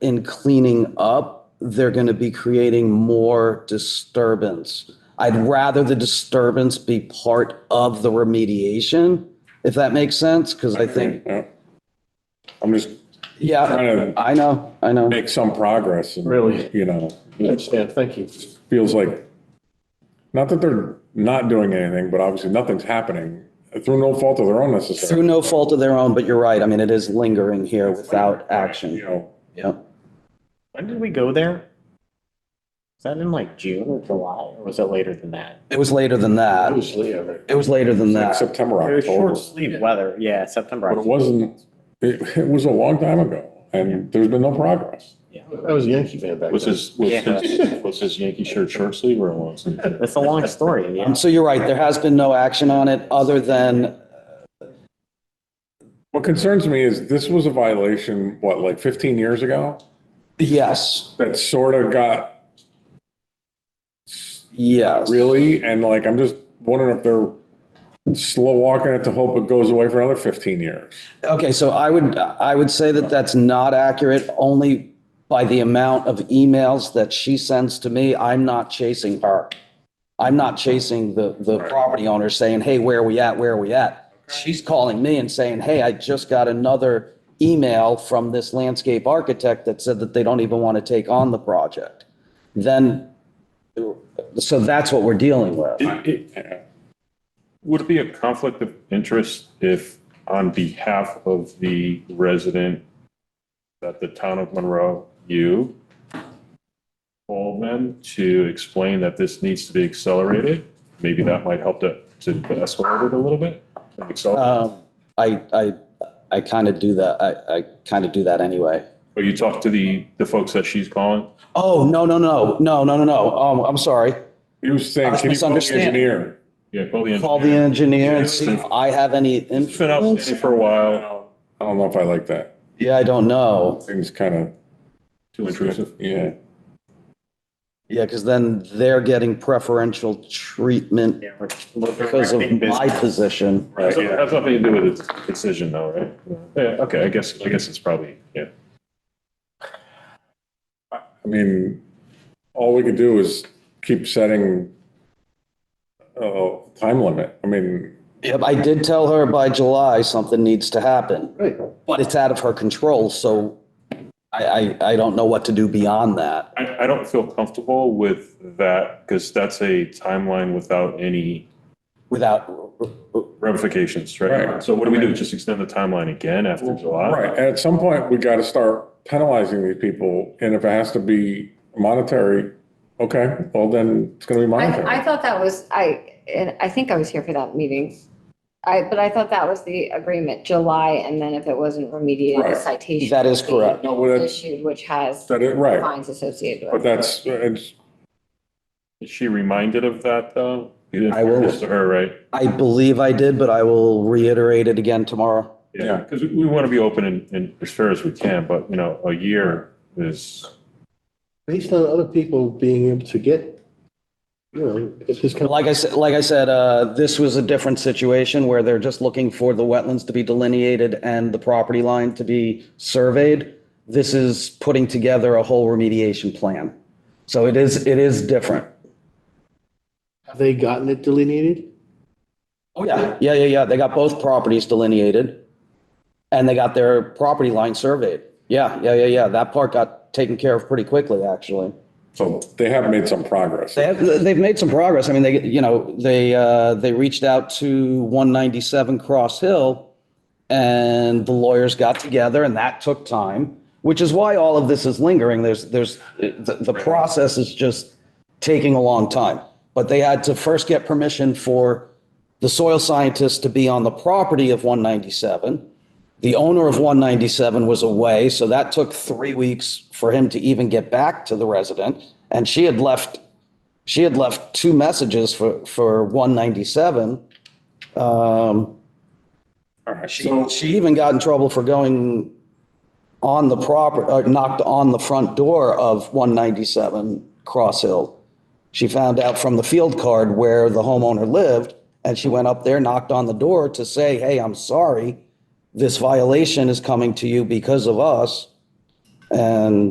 in cleaning up, they're going to be creating more disturbance. I'd rather the disturbance be part of the remediation, if that makes sense, because I think, Yeah. I'm just yeah, trying to I know, I know. make some progress. and, Really? You know, I it understand, thank you. feels like, not that they're not doing anything, but obviously nothing's happening through no fault of their own Through necessarily. no fault of their own, but you're right. I mean, it is lingering here without You action. know, Yeah. When did we go there? Was that in like June or July, or was it later than that? It was later than that. Obviously, I mean, It was later than like that. September, It was October. short sleeve weather, yeah, September. But it October. wasn't, it, it was a long time ago and there's been no progress. I was a Yankee fan back Was then. his, was his, was his Yankee shirt short sleeve or long sleeve? It's a long story, yeah. Um, So you're right, there has been no action on it other than, What concerns me is this was a violation, what, like 15 years ago? yes, That sort of got yes. really, and like, I'm just wondering if they're slow walking it to hope it goes away for another 15 years. Okay, so I would, I would say that that's not accurate only by the amount of emails that she sends to me. I'm not chasing her. I'm not chasing the, the property owner saying, hey, where are we at? Where are we at? She's calling me and saying, hey, I just got another email from this landscape architect that said that they don't even want to take on the project. Then, so that's what we're dealing with. Would it be a conflict of interest if on behalf of the resident that the town of Monroe, you called them to explain that this needs to be accelerated? Maybe that might help to, to escalate it a little bit? and accelerate. Um, I, I, I kind of do that. I, I kind of do that anyway. Or you talk to the, the folks that she's calling? Oh, no, no, no, no, no, no, no. Um, I'm sorry. He was saying, That's can you call the misunderstanding. engineer? Yeah, call the Call the engineer engineer. and see if I have any It's been up influence. for a while, I don't know if I like that. Yeah, I don't know. Seems kind too intrusive. of, yeah. Yeah, because then they're getting preferential treatment Yeah, we're- we're because of directing my business. position. Right, yeah, it has nothing to do with the decision though, right? Yeah, okay, I guess, I guess it's probably, yeah. I mean, all we could do is keep setting a time limit. I mean, Yep, I did tell her by July something needs to happen, Right, but it's out of her control, so I, I, I don't know what to do beyond that. I, I don't feel comfortable with that because that's a timeline without any Without, ramifications, right? Right. So what do we do? Just extend the timeline again after July? right, and at some point, we got to start penalizing these people. And if it has to be monetary, okay, well, then it's going to be I, I monetary. thought that was, I, and I think I was here for that meeting. I, but I thought that was the agreement, July, and then if it wasn't remediated, Right. a citation. that is correct. No, well, that's, Issued, which has that is, right, fines associated but with it. that's, it's, Is she reminded of that though? You I will. didn't this to her, right? I believe I did, but I will reiterate it again tomorrow. Yeah, Yeah. because we want to be open and, and as fair as we can, but you know, a year is, based on other people being able to get, you know, it's just kind of. Like I said, like I said, uh, this was a different situation where they're just looking for the wetlands to be delineated and the property line to be surveyed. This is putting together a whole remediation plan. So it is, it is different. Have they gotten it delineated? Oh, yeah. Yeah, yeah, yeah. They got both properties delineated and they got their property line surveyed. Yeah, yeah, yeah, yeah. That part got taken care of pretty quickly, actually. so they have made some progress. They have, they've made some progress. I mean, they, you know, they, uh, they reached out to 197 Cross Hill and the lawyers got together and that took time, which is why all of this is lingering. There's, there's, the, the process is just taking a long time. But they had to first get permission for the soil scientist to be on the property of 197. The owner of 197 was away, so that took three weeks for him to even get back to the resident. And she had left she had left two messages for, for 197. Um, All right, so, she, she even got in trouble for going on the proper, uh, knocked on the front door of 197 Cross Hill. She found out from the field card where the homeowner lived, and she went up there, knocked on the door to say, hey, I'm sorry, this violation is coming to you because of us. And